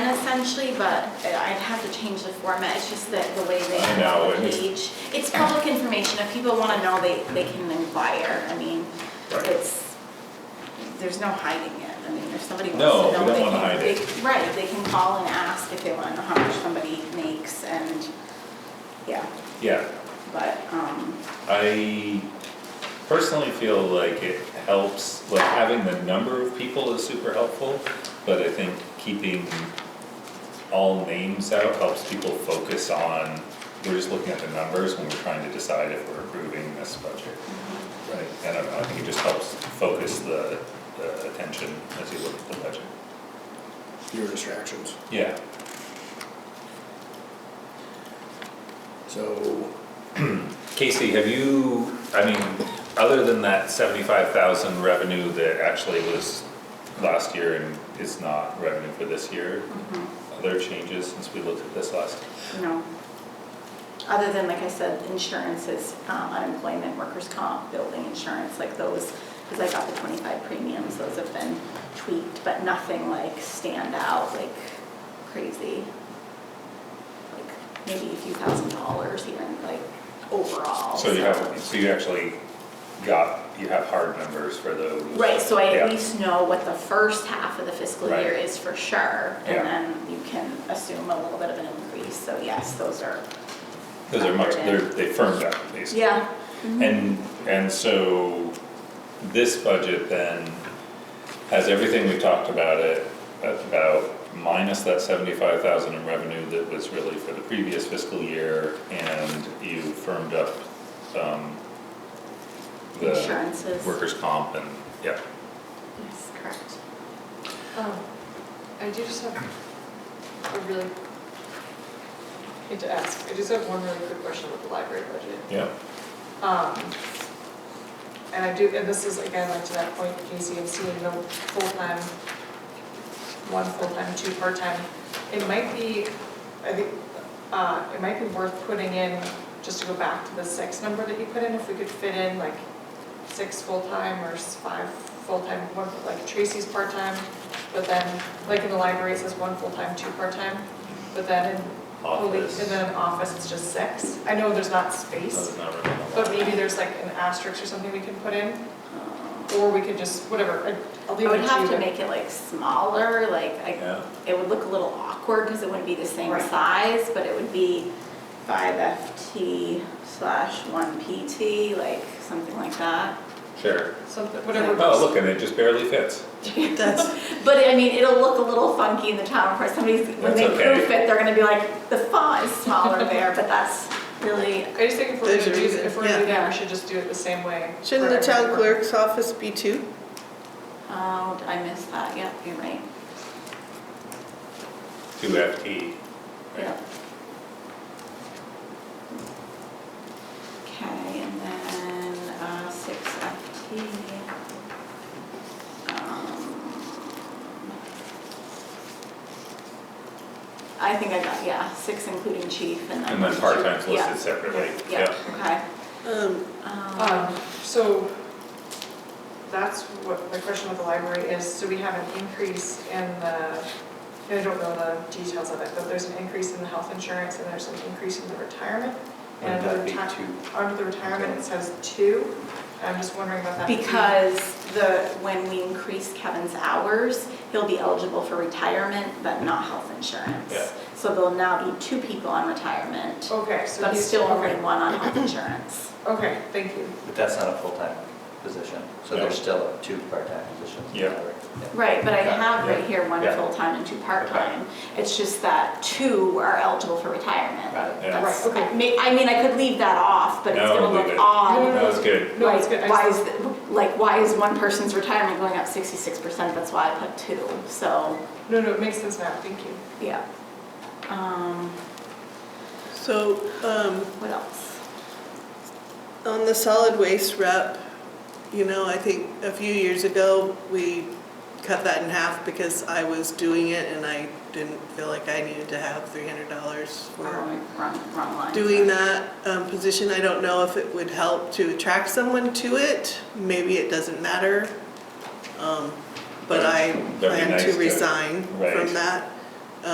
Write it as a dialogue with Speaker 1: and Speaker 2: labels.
Speaker 1: essentially, but I'd have to change the format, it's just that the way they
Speaker 2: I know,
Speaker 1: have the
Speaker 2: it's-
Speaker 1: page. It's public information, if people wanna know, they, they can inquire, I mean,
Speaker 2: Right.
Speaker 1: it's, there's no hiding it, I mean, if somebody wants to
Speaker 2: No,
Speaker 1: know.
Speaker 2: we don't
Speaker 1: they
Speaker 2: wanna
Speaker 1: can-
Speaker 2: hide
Speaker 1: they-
Speaker 2: it.
Speaker 1: Right, they can call and ask if they wanna know how much somebody makes and, yeah,
Speaker 2: Yeah,
Speaker 1: but, um,
Speaker 2: I personally feel like it helps, like having the number of people is super helpful, but I think keeping all names out helps people focus on, we're just looking at the numbers when we're trying to decide if we're approving this budget. Right, I don't know, I think it just helps focus the, the attention as you look at the budget.
Speaker 3: your distractions.
Speaker 2: Yeah,
Speaker 3: So,
Speaker 2: Casey, have you, I mean, other than that seventy-five thousand revenue that actually was last year and is not revenue for this year,
Speaker 1: mhm.
Speaker 2: other changes since we looked at this last?
Speaker 1: No. Other than, like I said, insurances, um, unemployment, workers' comp, building insurance, like those, because I got the 25 premiums, those have been tweaked, but nothing like stand out like crazy. Like Maybe a few thousand dollars here and like overall.
Speaker 2: So you have, so you actually got, you have hard numbers for those?
Speaker 1: Right, so I
Speaker 2: Yeah.
Speaker 1: at least know what the first half of the fiscal
Speaker 2: Right.
Speaker 1: year is for sure.
Speaker 2: Yeah.
Speaker 1: And then you can assume a little bit of an increase, so yes, those are,
Speaker 2: Those are much, they're, they firmed up at least.
Speaker 1: yeah.
Speaker 2: And, and so this budget then has everything we talked about it, about minus that seventy-five thousand in revenue that was really for the previous fiscal year and you firmed up, um, the
Speaker 1: Insurances.
Speaker 2: Workers' comp and, yeah,
Speaker 1: Yes, correct.
Speaker 4: Um, I do just have a really, need to ask, I just have one really quick question about the library budget.
Speaker 2: yeah,
Speaker 4: Um, And I do, and this is again, like to that point, Casey, of seeing the full-time, one full-time, two part-time. It might be, I think, uh, it might be worth putting in, just to go back to the six number that you put in, if we could fit in like six full-time or s- five full-time, one, like Tracy's part-time, but then, like in the library, it says one full-time, two part-time, but then in, police-
Speaker 2: Office.
Speaker 4: and then in office, it's just six. I know there's not space.
Speaker 2: that's not really. a lot.
Speaker 4: But maybe there's like an asterisk or something we can put in, or we could just, whatever, I- I'll
Speaker 1: I
Speaker 4: leave it
Speaker 1: would
Speaker 4: to you.
Speaker 1: have to
Speaker 4: but-
Speaker 1: make it like smaller, like
Speaker 2: Yeah.
Speaker 1: I, it would look a little awkward because it wouldn't be the same
Speaker 4: Right.
Speaker 1: size, but it would be five FT slash one PT, like something like that.
Speaker 2: Sure.
Speaker 4: Something, whatever.
Speaker 2: Oh, look, and it just barely fits.
Speaker 1: But I mean, it'll look a little funky in the town report. Somebody's, when
Speaker 2: That's
Speaker 1: they
Speaker 2: okay.
Speaker 1: proof it, they're gonna be like, the font is smaller there, but that's really,
Speaker 4: I just think if we're
Speaker 5: There's
Speaker 4: gonna
Speaker 5: a
Speaker 4: do,
Speaker 5: reason,
Speaker 4: if we're gonna do
Speaker 1: yeah.
Speaker 4: that, we should just do it the same way.
Speaker 5: Shouldn't
Speaker 4: for
Speaker 5: the town
Speaker 4: everyone.
Speaker 5: clerk's office be two?
Speaker 1: oh, did I miss that? Yep, you're right.
Speaker 2: Two FT.
Speaker 1: Yep. Okay, and then, uh, six FT. Um, I think I got, yeah, six including chief and then.
Speaker 2: And then part-time's
Speaker 1: Yeah,
Speaker 2: listed separately,
Speaker 1: Yeah,
Speaker 2: yeah.
Speaker 1: okay.
Speaker 5: Um,
Speaker 4: Um,
Speaker 1: Um,
Speaker 4: so, that's what, the question with the library is, so we have an increase in the, I don't know the details of it, but there's an increase in the health insurance, and there's an increase in the retirement. And
Speaker 2: Wouldn't
Speaker 4: under
Speaker 2: that
Speaker 4: the
Speaker 2: be
Speaker 4: ta-
Speaker 2: two?
Speaker 4: under the retirement, it says two, I'm just wondering about that.
Speaker 1: Because the, when we increase Kevin's hours, he'll be eligible for retirement, but not health insurance.
Speaker 2: Yeah.
Speaker 1: So there'll now be two people on retirement.
Speaker 4: Okay, so
Speaker 1: But
Speaker 4: he's.
Speaker 1: still only
Speaker 4: okay.
Speaker 1: one on health insurance.
Speaker 4: Okay, thank you.
Speaker 6: But that's not a full-time position, so
Speaker 2: No.
Speaker 6: there's still two part-time positions.
Speaker 2: Yeah.
Speaker 6: Yeah.
Speaker 1: Right, but I have right
Speaker 2: Yeah.
Speaker 1: here one
Speaker 2: Yeah.
Speaker 1: full-time and two part-time. It's just that two are eligible for retirement.
Speaker 6: Got it.
Speaker 2: Yeah.
Speaker 1: That's-
Speaker 4: Right, okay.
Speaker 1: I may- I mean, I could leave that off, but it's
Speaker 2: No,
Speaker 1: gonna
Speaker 2: leave
Speaker 1: look
Speaker 2: it.
Speaker 4: No,
Speaker 1: odd.
Speaker 2: That was good.
Speaker 4: No, it's good.
Speaker 1: Like,
Speaker 4: I
Speaker 1: why
Speaker 4: just-
Speaker 1: is, the- like, why is one person's retirement going up sixty-six percent? That's why I put two, so,
Speaker 4: No, no, it makes sense now, thank you.
Speaker 1: yeah. Um,
Speaker 5: So, um,
Speaker 1: what else?
Speaker 5: on the solid waste rep, you know, I think a few years ago, we cut that in half because I was doing it and I didn't feel like I needed to have three hundred dollars for
Speaker 1: Wrong, wrong, wrong line.
Speaker 5: doing that, um, position. I don't know if it would help to attract someone to it. Maybe it doesn't matter. Um, but I
Speaker 2: That'd be
Speaker 5: plan
Speaker 2: nice
Speaker 5: to
Speaker 2: to-
Speaker 5: resign
Speaker 2: right.
Speaker 5: from that.